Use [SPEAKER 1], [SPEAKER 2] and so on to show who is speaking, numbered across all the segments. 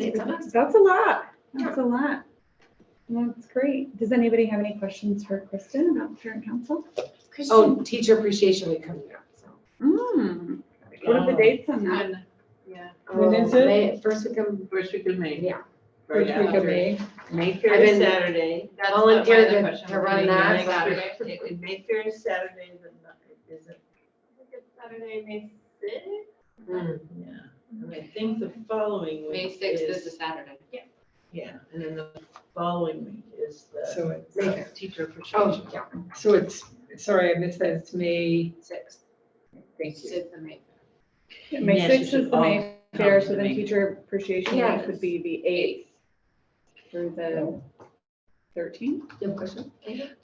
[SPEAKER 1] It's a mess.
[SPEAKER 2] That's a lot. That's a lot. Well, That's great. Does anybody have any questions for Kristen about parent council?
[SPEAKER 1] Oh, teacher appreciation week coming up, so.
[SPEAKER 3] Hmm.
[SPEAKER 2] Mm. What
[SPEAKER 3] Um,
[SPEAKER 2] are the dates on that?
[SPEAKER 4] When- Yeah,
[SPEAKER 5] When is it?
[SPEAKER 1] Um, May- First week of,
[SPEAKER 4] first week of May.
[SPEAKER 1] yeah.
[SPEAKER 5] First
[SPEAKER 4] Right
[SPEAKER 5] week of
[SPEAKER 4] after.
[SPEAKER 5] May.
[SPEAKER 4] Mayfair
[SPEAKER 1] I've
[SPEAKER 4] is
[SPEAKER 1] been-
[SPEAKER 4] Saturday.
[SPEAKER 1] That's what my Volunteer other to- question to was. run that
[SPEAKER 4] Mayfair is
[SPEAKER 1] Saturday.
[SPEAKER 4] Saturday. Mayfair is Saturday, the ni- is it? I think it's Saturday, May sixth?
[SPEAKER 1] Mm.
[SPEAKER 4] Yeah, and I think the following
[SPEAKER 6] May
[SPEAKER 4] week
[SPEAKER 6] sixth is a
[SPEAKER 4] is,
[SPEAKER 6] Saturday.
[SPEAKER 4] yeah, and then the following week is the uh,
[SPEAKER 5] So it's,
[SPEAKER 1] May fifth.
[SPEAKER 4] teacher appreciation.
[SPEAKER 1] Oh, yeah,
[SPEAKER 5] so it's, sorry, I missed that. It's May,
[SPEAKER 1] six.
[SPEAKER 5] thank you.
[SPEAKER 6] It's the May.
[SPEAKER 2] May
[SPEAKER 4] Yes, you
[SPEAKER 2] sixth is
[SPEAKER 4] should
[SPEAKER 2] the
[SPEAKER 4] all
[SPEAKER 2] May
[SPEAKER 4] come
[SPEAKER 2] fair,
[SPEAKER 4] to
[SPEAKER 2] so
[SPEAKER 4] the
[SPEAKER 2] then
[SPEAKER 4] May.
[SPEAKER 2] teacher appreciation week
[SPEAKER 1] Yes.
[SPEAKER 2] would be the eighth through the thirteenth.
[SPEAKER 1] You have a question?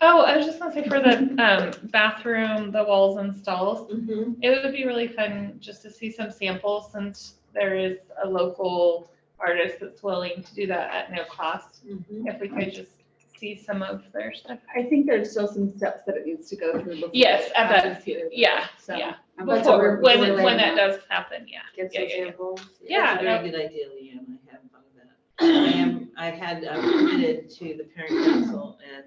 [SPEAKER 3] Oh, I was just gonna say for the um, bathroom, the walls and stalls,
[SPEAKER 4] Mhm.
[SPEAKER 3] it would be really fun just to see some samples since there is a local artist that's willing to do that at no cost.
[SPEAKER 1] Mm-hmm.
[SPEAKER 4] Mhm.
[SPEAKER 3] If we could just see some of their stuff.
[SPEAKER 2] I think there's still some steps that it needs to go through. before
[SPEAKER 3] Yes,
[SPEAKER 2] it
[SPEAKER 3] at that-
[SPEAKER 2] happens here, though.
[SPEAKER 3] yeah,
[SPEAKER 2] So,
[SPEAKER 3] yeah.
[SPEAKER 2] I'm glad that
[SPEAKER 3] Before,
[SPEAKER 2] we're-
[SPEAKER 3] when,
[SPEAKER 2] we're
[SPEAKER 1] it-
[SPEAKER 3] when
[SPEAKER 2] laying
[SPEAKER 3] that
[SPEAKER 2] out.
[SPEAKER 3] does happen, yeah.
[SPEAKER 1] Get
[SPEAKER 3] Yeah,
[SPEAKER 1] some
[SPEAKER 3] yeah, yeah.
[SPEAKER 1] samples.
[SPEAKER 3] Yeah,
[SPEAKER 4] That's a very good idea, Leanne. I haven't thought of that. I am, I had uh, committed to the parent council and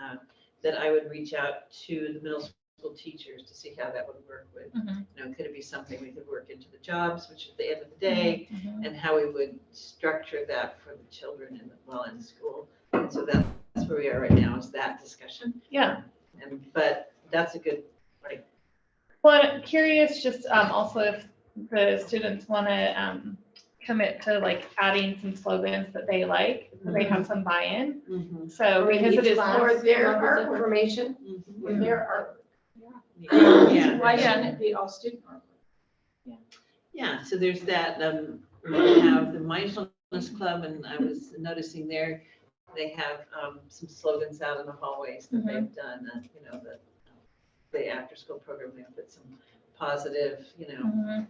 [SPEAKER 4] uh, that I would reach out to the middle school teachers to see how that would work with,
[SPEAKER 3] Mhm.
[SPEAKER 4] you know, could it be something we could work into the jobs, which at the end of the
[SPEAKER 3] Mm-hmm,
[SPEAKER 4] day, and how we would structure that for the children in, while in school. And so that- that's where we are right now, is that discussion.
[SPEAKER 3] Yeah.
[SPEAKER 4] And, but that's a good,
[SPEAKER 3] Well, I'm curious just um, also if the students want to um, commit to like adding some slogans that they like, so they have some buy-in. So
[SPEAKER 1] Mm-hmm. Or in
[SPEAKER 3] because it
[SPEAKER 1] each
[SPEAKER 3] is
[SPEAKER 1] class,
[SPEAKER 3] more
[SPEAKER 1] their art information.
[SPEAKER 4] Mhm.
[SPEAKER 5] mm-hmm.
[SPEAKER 1] With their art.
[SPEAKER 4] Yeah.
[SPEAKER 3] Why shouldn't
[SPEAKER 1] it be all student art?
[SPEAKER 4] Yeah, so there's that, um, we have the mindfulness club and I was noticing there, they have, um, some slogans out in the hallways
[SPEAKER 2] Mm-hmm.
[SPEAKER 4] that they've done, uh, you know, the, the after-school program, they put some positive, you know,
[SPEAKER 3] Mhm.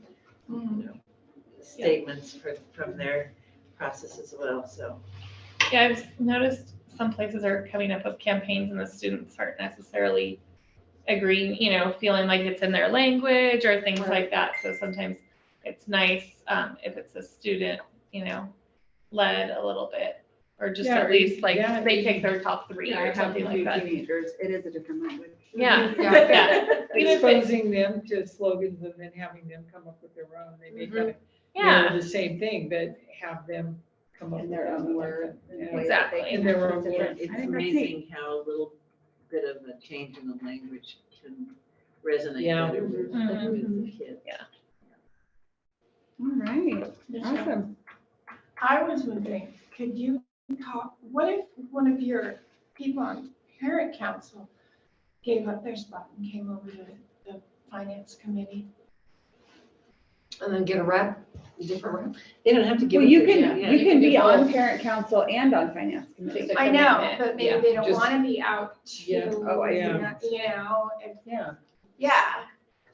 [SPEAKER 2] Mm-hmm. Mm.
[SPEAKER 4] you know, statements for, from their process as well, so.
[SPEAKER 3] Yeah, I've noticed some places are coming up with campaigns and the students aren't necessarily agreeing, you know, feeling like it's in their language or things like that. So sometimes it's nice um, if it's a student, you know, led a little bit, or just
[SPEAKER 5] Yeah,
[SPEAKER 3] at
[SPEAKER 5] or-
[SPEAKER 3] least like
[SPEAKER 5] yeah,
[SPEAKER 3] they pick their top three
[SPEAKER 2] Yeah, I
[SPEAKER 3] or
[SPEAKER 2] have
[SPEAKER 3] something like
[SPEAKER 2] two
[SPEAKER 3] that.
[SPEAKER 2] teenagers. It is a different language.
[SPEAKER 3] Yeah,
[SPEAKER 1] Yeah.
[SPEAKER 3] Even if it-
[SPEAKER 5] Exposing them to slogans and then having them come up with their own. They may kind of, you
[SPEAKER 3] Mm-hmm. yeah.
[SPEAKER 5] know, the same thing, but have them come up
[SPEAKER 2] In
[SPEAKER 5] with
[SPEAKER 2] their
[SPEAKER 5] their
[SPEAKER 2] own
[SPEAKER 5] own
[SPEAKER 2] word.
[SPEAKER 5] word.
[SPEAKER 3] Exactly.
[SPEAKER 5] In their own
[SPEAKER 2] Yeah.
[SPEAKER 5] word.
[SPEAKER 4] It's
[SPEAKER 2] I think that's neat.
[SPEAKER 4] amazing how a little bit of a change in the language can resonate
[SPEAKER 5] Yeah.
[SPEAKER 4] better with,
[SPEAKER 2] Mm-hmm.
[SPEAKER 4] with the kids.
[SPEAKER 2] All right,
[SPEAKER 7] Michelle,
[SPEAKER 2] awesome.
[SPEAKER 7] I was wondering, could you talk, what if one of your people on parent council gave up their spot and came over to the finance committee?
[SPEAKER 1] And then get a rep, a different rep.
[SPEAKER 4] They don't have to give.
[SPEAKER 2] Well,
[SPEAKER 4] it
[SPEAKER 2] you
[SPEAKER 4] to
[SPEAKER 2] can,
[SPEAKER 4] yeah,
[SPEAKER 2] you can
[SPEAKER 4] do
[SPEAKER 2] be on
[SPEAKER 4] both.
[SPEAKER 2] parent council and on finance committee.
[SPEAKER 7] I know, but maybe
[SPEAKER 3] Yeah,
[SPEAKER 7] they don't
[SPEAKER 5] just-
[SPEAKER 7] want to be out too,
[SPEAKER 5] Yeah.
[SPEAKER 2] Oh, I see.
[SPEAKER 5] Yeah.
[SPEAKER 7] you know, and,
[SPEAKER 5] Yeah.
[SPEAKER 7] yeah.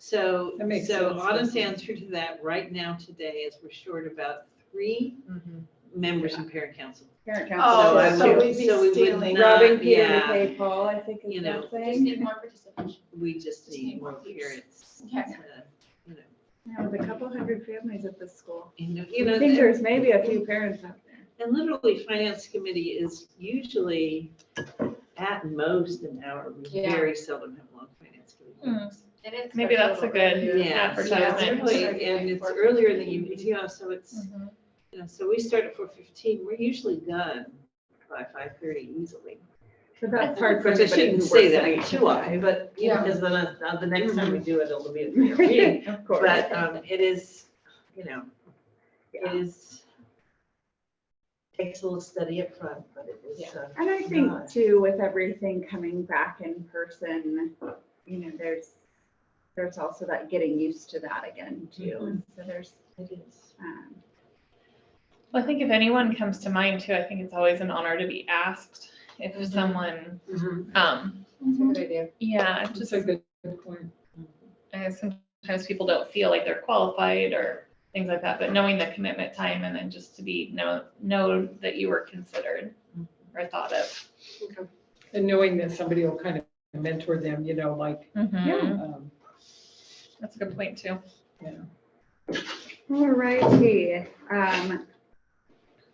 [SPEAKER 4] So,
[SPEAKER 5] That makes
[SPEAKER 4] so
[SPEAKER 5] sense.
[SPEAKER 4] honest answer to that right now today is we're short about three members in parent council.
[SPEAKER 2] Parent
[SPEAKER 7] Oh,
[SPEAKER 2] council.
[SPEAKER 4] I
[SPEAKER 2] is
[SPEAKER 7] so
[SPEAKER 4] would-
[SPEAKER 2] two.
[SPEAKER 7] we'd be
[SPEAKER 4] so we would
[SPEAKER 7] stealing.
[SPEAKER 4] not-
[SPEAKER 2] Robin, Peter, to
[SPEAKER 4] yeah.
[SPEAKER 2] pay Paul, I think is
[SPEAKER 4] You
[SPEAKER 2] that
[SPEAKER 4] know,
[SPEAKER 6] Just
[SPEAKER 2] saying.
[SPEAKER 6] need more participation.
[SPEAKER 4] We just
[SPEAKER 7] Just
[SPEAKER 4] need
[SPEAKER 7] need
[SPEAKER 4] more
[SPEAKER 7] more kids.
[SPEAKER 4] parents.
[SPEAKER 7] Okay.
[SPEAKER 4] to, you know,
[SPEAKER 2] Yeah, With a couple hundred families at this school.
[SPEAKER 4] You know, you
[SPEAKER 2] I
[SPEAKER 4] know,
[SPEAKER 2] think
[SPEAKER 4] and-
[SPEAKER 2] there's maybe a few parents out there.
[SPEAKER 4] and literally finance committee is usually at most an hour. We
[SPEAKER 1] Yeah.
[SPEAKER 4] very seldom have long finance committee.
[SPEAKER 3] Mm.
[SPEAKER 4] meetings.
[SPEAKER 6] It is
[SPEAKER 3] Maybe that's a
[SPEAKER 6] special.
[SPEAKER 3] good
[SPEAKER 4] Yeah, so it's
[SPEAKER 3] advertisement.
[SPEAKER 4] early, and it's earlier in the evening, yeah, so it's,
[SPEAKER 2] Mm-hmm.
[SPEAKER 4] you know, so we start at four fifteen, we're usually done by five thirty easily.
[SPEAKER 2] So
[SPEAKER 4] Of
[SPEAKER 2] that's hard for
[SPEAKER 4] course, I
[SPEAKER 2] anybody who
[SPEAKER 4] shouldn't
[SPEAKER 2] works
[SPEAKER 4] say
[SPEAKER 2] at
[SPEAKER 4] that
[SPEAKER 2] each.
[SPEAKER 4] too I? but, you know,
[SPEAKER 1] Yeah.
[SPEAKER 4] because then uh, uh, the next time we do it, it'll be. a bigger meeting.
[SPEAKER 2] Of course.
[SPEAKER 4] But um, it is, you know, it is, takes a little study up front, but it is.
[SPEAKER 1] Yeah.
[SPEAKER 4] uh,
[SPEAKER 2] And I
[SPEAKER 4] Yeah.
[SPEAKER 2] think too, with everything coming back in person, you know, there's, there's also that getting used to that again too. And So there's,
[SPEAKER 4] Mm-hmm. it is.
[SPEAKER 2] um,
[SPEAKER 3] Well, I think if anyone comes to mind too, I think it's always an honor to be asked if
[SPEAKER 5] Mm-hmm.
[SPEAKER 3] someone,
[SPEAKER 1] Mm-hmm.
[SPEAKER 3] um,
[SPEAKER 7] Mm-hmm.
[SPEAKER 1] That's a good idea.
[SPEAKER 3] yeah,
[SPEAKER 5] Just
[SPEAKER 3] just
[SPEAKER 5] a good good point.
[SPEAKER 3] I sometimes people don't feel like they're qualified or things like that, but knowing the commitment time and then just to be know know that you were considered or thought of.
[SPEAKER 5] And knowing that somebody will kind of mentor them, you know, like,
[SPEAKER 3] Yeah,
[SPEAKER 5] um,
[SPEAKER 3] that's a good point too.
[SPEAKER 2] All righty, um,